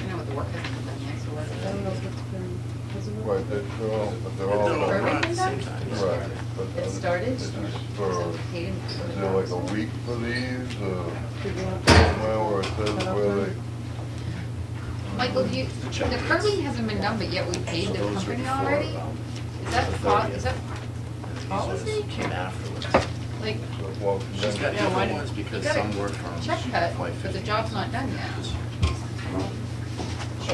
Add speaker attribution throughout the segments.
Speaker 1: what kind of company next door?
Speaker 2: I don't know if it's been, has it been?
Speaker 3: Right, they- they're all, but they're all.
Speaker 4: They're all
Speaker 3: Right.
Speaker 4: run at the same time.
Speaker 3: but
Speaker 1: It started?
Speaker 3: It's just for,
Speaker 1: Hayden.
Speaker 3: is there like a week for these, uh,
Speaker 2: Did you want-
Speaker 3: somewhere where it says
Speaker 2: Cut off
Speaker 3: where they?
Speaker 2: time?
Speaker 1: Michael, do you, the curbing hasn't been done, but yet we paid the company already?
Speaker 3: um,
Speaker 1: Is that, po- is that policy?
Speaker 4: Came afterwards.
Speaker 1: Like,
Speaker 3: Well,
Speaker 4: She's got
Speaker 3: then,
Speaker 1: Yeah, why
Speaker 4: different
Speaker 1: do-
Speaker 4: ones
Speaker 1: you
Speaker 4: because some were
Speaker 1: gotta
Speaker 4: from.
Speaker 1: check cut,
Speaker 4: like
Speaker 1: but the
Speaker 4: 50.
Speaker 1: job's not done yet.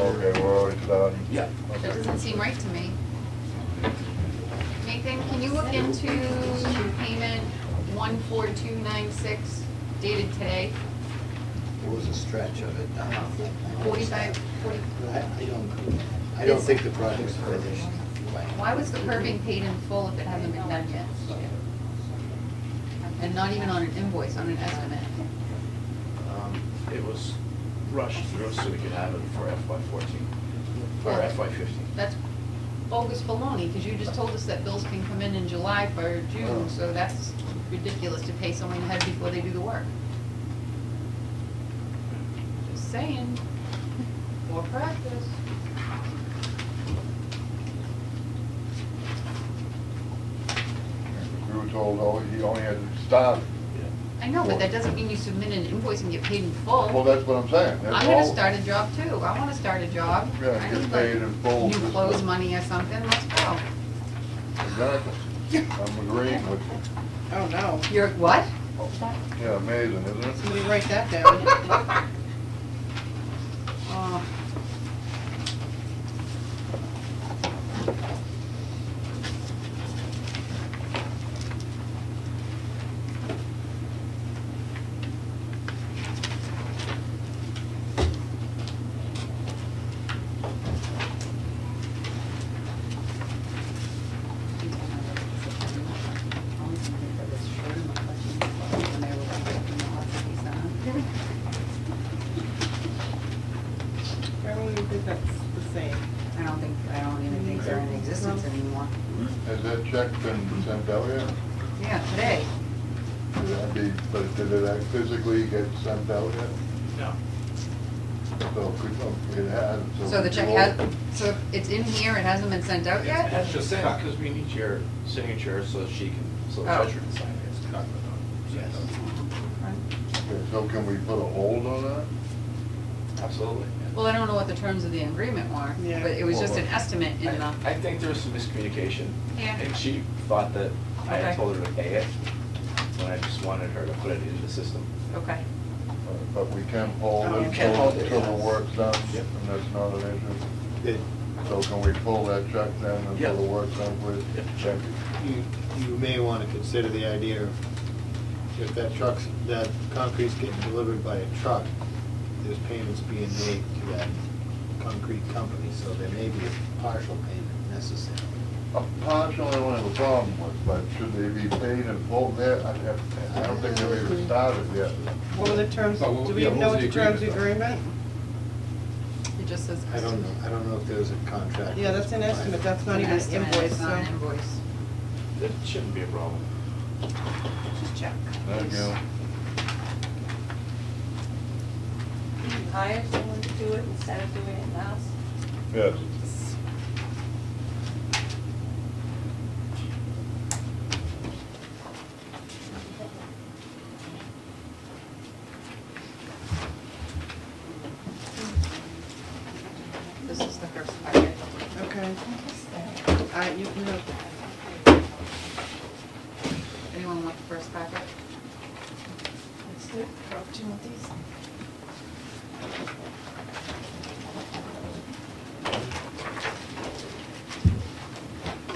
Speaker 3: okay, we're already done.
Speaker 4: Yeah.
Speaker 3: Okay.
Speaker 1: That doesn't seem right to me. Nathan, can you look into payment one four two nine six dated today?
Speaker 5: There was a stretch of it. I don't think-
Speaker 4: Uh-huh.
Speaker 1: Forty-five, forty,
Speaker 5: I, I don't, I don't think the project's finished.
Speaker 1: why was the curbing paid in full if it hasn't been done yet? And not even on an invoice, on an estimate?
Speaker 4: Um, It was rushed through so we could have it for FY fourteen, or
Speaker 1: Well-
Speaker 4: FY fifteen.
Speaker 1: That's bogus baloney, because you just told us that bills can come in in July for June, so that's ridiculous to pay someone ahead before they do the work. Just saying, more practice.
Speaker 3: We were told, oh, he only had to stop.
Speaker 1: I know, but that doesn't mean you submit an invoice and get paid in
Speaker 3: Well,
Speaker 1: full.
Speaker 3: that's what I'm saying. That's
Speaker 1: I'm gonna
Speaker 3: all.
Speaker 1: start a job too, I wanna start a job.
Speaker 3: Yeah,
Speaker 1: I
Speaker 3: get
Speaker 1: need,
Speaker 3: paid in full.
Speaker 1: Like new clothes money or something, let's go.
Speaker 3: Exactly. I'm agreeing with you.
Speaker 2: Oh, no.
Speaker 1: You're, what?
Speaker 3: Yeah, amazing, isn't it?
Speaker 2: Somebody write that down.
Speaker 1: Oh.
Speaker 2: I don't even think that's the same.
Speaker 1: I don't think, I don't even think they're in existence anymore.
Speaker 3: Has that check been sent out yet?
Speaker 1: Yeah, today.
Speaker 3: That'd be, but did it act- physically get sent out yet?
Speaker 4: No.
Speaker 3: So could, oh, it had, so.
Speaker 1: So the
Speaker 3: could
Speaker 1: check
Speaker 3: you
Speaker 1: has,
Speaker 3: all-
Speaker 1: so it's in here, it hasn't been sent out yet?
Speaker 4: That's just saying, because we need your signature so she can, so the
Speaker 1: Oh.
Speaker 4: treasurer can sign it. It's not going on.
Speaker 3: okay, So can we put a hold on that?
Speaker 4: Absolutely. yeah.
Speaker 1: Well, I don't know what the terms of the agreement were,
Speaker 2: Yeah.
Speaker 1: but it was just an
Speaker 3: Well,
Speaker 1: estimate in the,
Speaker 4: I I think there was some miscommunication.
Speaker 1: Yeah.
Speaker 4: And she thought that I
Speaker 1: Okay.
Speaker 4: had told her to pay it, when I just wanted her to put it in the system.
Speaker 1: okay.
Speaker 3: Uh, But we can hold
Speaker 2: Oh,
Speaker 3: it
Speaker 2: you can
Speaker 3: until,
Speaker 4: hold it,
Speaker 3: until the
Speaker 4: yes.
Speaker 3: work's done,
Speaker 4: Yep.
Speaker 3: and that's not an issue.
Speaker 5: Did,
Speaker 3: So can we pull that check then
Speaker 4: Yeah.
Speaker 3: until the work's done, please?
Speaker 4: Yep, sure.
Speaker 5: you, you may want to consider the idea of if that truck's, that concrete's getting delivered by a truck, there's payments being made to that concrete company, so there may be a partial payment necessary.
Speaker 3: A partial, I don't have a problem with, but should they be paid in full there? I have, I don't think they've even started yet.
Speaker 2: What were the terms,
Speaker 3: Oh, well,
Speaker 2: do we
Speaker 3: yeah,
Speaker 2: even
Speaker 3: what
Speaker 2: know
Speaker 3: was
Speaker 2: what
Speaker 3: the
Speaker 2: the terms of
Speaker 3: agreement,
Speaker 2: agreement?
Speaker 1: It just says.
Speaker 5: I don't know, I don't know if there's a contract.
Speaker 2: Yeah, that's an estimate, that's not even an
Speaker 1: estimate,
Speaker 2: invoice,
Speaker 1: it's not
Speaker 2: so.
Speaker 1: an invoice.
Speaker 4: That shouldn't be a problem.
Speaker 1: Just check.
Speaker 3: There you go.
Speaker 6: Can you hire someone to do it instead of doing it in-house?
Speaker 3: Yes.
Speaker 1: This is the first packet.
Speaker 2: Okay. All right, you can have
Speaker 1: Anyone want the first packet?
Speaker 6: Let's do it for opportunities.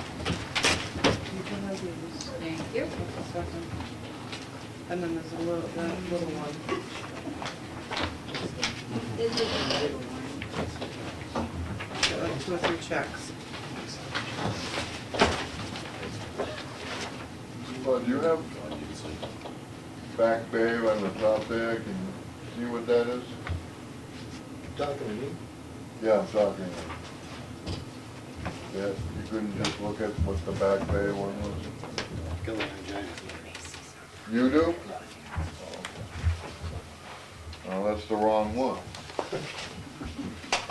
Speaker 2: You can have these.
Speaker 1: Thank you.
Speaker 2: Just a second. And then there's a little, that little one. Got like two or three checks.
Speaker 3: Well, do you have back bay on the top there? Can you see what that is?
Speaker 5: Talking to me?
Speaker 3: Yeah, I'm talking. Yeah, you couldn't just look at what the back bay one was?
Speaker 5: Go on, John.
Speaker 3: You do? Oh, okay. Well, that's the wrong one.